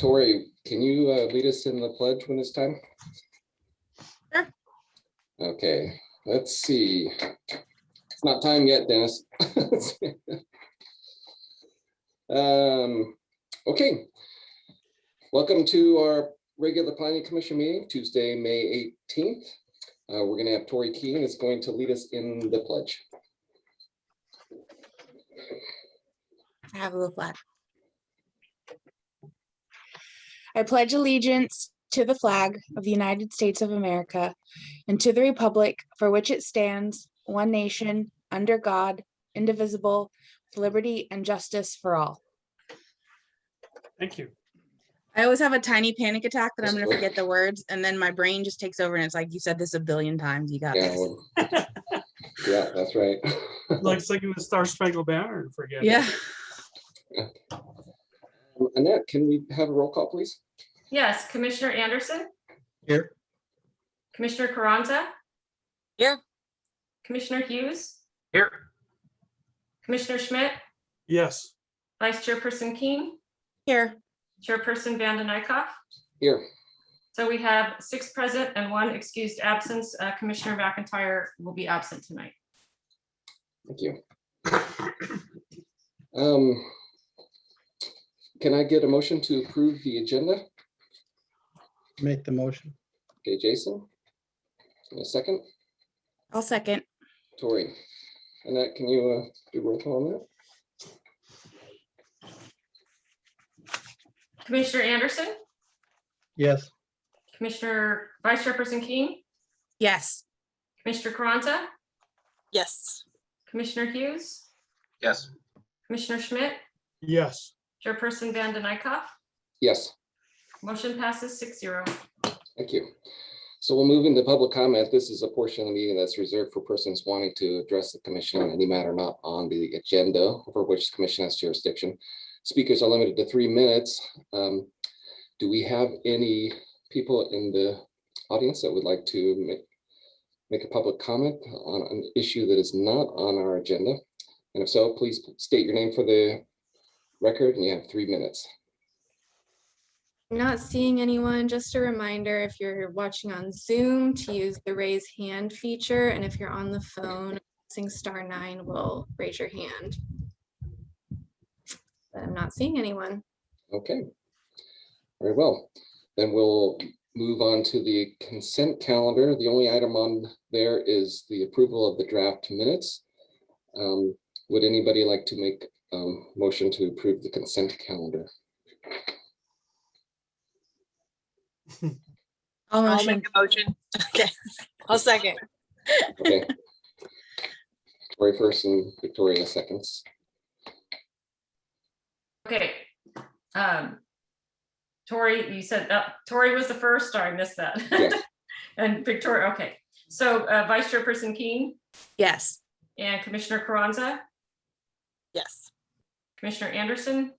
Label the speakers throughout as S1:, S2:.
S1: Tori, can you uh, lead us in the pledge when it's time?
S2: Sure.
S1: Okay, let's see. It's not time yet, Dennis. Um, okay. Welcome to our regular planning commission meeting, Tuesday, May 18th. Uh, We're going to have Tori Keene is going to lead us in the pledge.
S2: I have a little flag. I pledge allegiance to the flag of the United States of America and to the republic for which it stands, one nation, under God, indivisible, with liberty and justice for all.
S3: Thank you.
S2: I always have a tiny panic attack that I'm
S1: That's
S2: gonna
S1: cool.
S2: forget the words and then my brain just takes over and it's like, you said this a billion times, you got
S1: Yeah,
S2: this.
S1: well, yeah, that's right.
S3: Like singing the Star Spangled Banner and forget. it.
S2: Yeah,
S1: Annette, can we have a roll call, please?
S4: Yes, Commissioner Anderson,
S5: Here.
S4: Commissioner Carranza.
S6: Here.
S4: Commissioner Hughes,
S5: Here.
S4: Commissioner Schmidt,
S3: Yes,
S4: Vice Chairperson Keene,
S2: here,
S4: Chairperson Vanden Eyck.
S1: Here.
S4: So we have six present and one excused absence. Uh, Commissioner McIntyre will be absent tonight.
S1: Thank you. Um, Can I get a motion to approve the agenda?
S5: Make the motion.
S1: Okay, Jason? A second,
S2: I'll second.
S1: Tori. Annette, can you uh, do roll call on that?
S4: Commissioner Anderson,
S5: Yes.
S4: Commissioner, Vice Chairperson Keene,
S2: Yes,
S4: Commissioner Carranza,
S6: Yes.
S4: Commissioner Hughes,
S5: Yes.
S4: Commissioner Schmidt,
S3: yes.
S4: Chairperson Vanden Eyck.
S1: Yes,
S4: Motion passes six zero.
S1: thank you. So we'll move into public comment. This is a portion of the meeting that's reserved for persons wanting to address the commission on any matter not on the agenda over which the commission has jurisdiction. Speakers are limited to three minutes. Um, Do we have any people in the audience that would like to make, make a public comment on an issue that is not on our agenda? And if so, please state your name for the record and you have three minutes.
S7: Not seeing anyone, just a reminder, if you're watching on Zoom, to use the raise hand feature, and if you're on the phone, pressing star nine will raise your hand. But I'm not seeing anyone.
S1: Okay. Very well. Then we'll move on to the consent calendar. The only item on there is the approval of the draft minutes. Um, Would anybody like to make a motion to approve the consent calendar?
S2: I'll
S6: I'll
S2: motion.
S6: make a motion. Okay. I'll second.
S1: Okay. Victoria first and Victoria seconds.
S4: Okay. Um, Tori, you said that, Tori was the first, or I missed that.
S1: Yes.
S4: And Victoria, okay. So uh, Vice Chairperson Keene
S2: Yes,
S4: and Commissioner Carranza,
S6: Yes.
S4: Commissioner Anderson,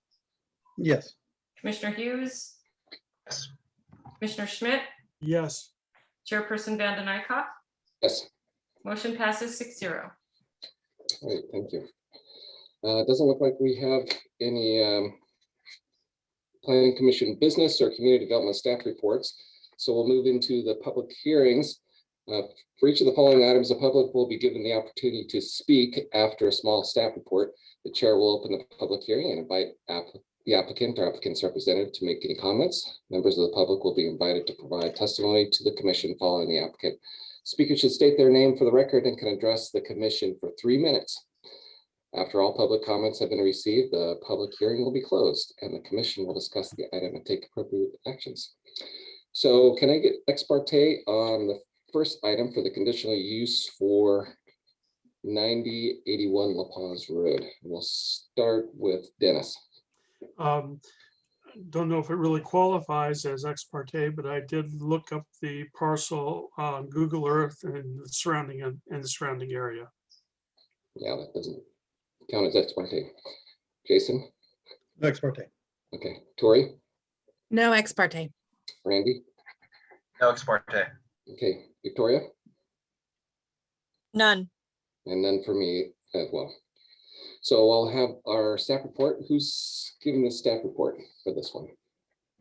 S5: Yes.
S4: Commissioner Hughes.
S5: Yes.
S4: Commissioner Schmidt,
S3: Yes,
S4: Chairperson Vanden Eyck.
S1: Yes.
S4: Motion passes six zero.
S1: Great, thank you. Uh, It doesn't look like we have any um, planning commission business or community development staff reports. So we'll move into the public hearings. Uh, For each of the following items, the public will be given the opportunity to speak after a small staff report. The chair will open the public hearing and invite app- the applicant or applicant's representative to make any comments. Members of the public will be invited to provide testimony to the commission following the applicant. Speakers should state their name for the record and can address the commission for three minutes. After all public comments have been received, the public hearing will be closed and the commission will discuss the item and take appropriate actions. So can I get ex parte on the first item for the conditional use for ninety eighty-one La Paz Road? We'll start with Dennis.
S3: um, don't know if it really qualifies as ex parte, but I did look up the parcel on Google Earth and the surrounding and the surrounding area.
S1: Yeah, that doesn't count as ex parte. Jason,
S5: No ex parte.
S1: okay, Tori,
S2: no ex parte.
S1: Randy,
S8: No ex parte.
S1: okay, Victoria?
S6: None.
S1: And then for me as well. So I'll have our staff report. Who's giving the staff report for this one?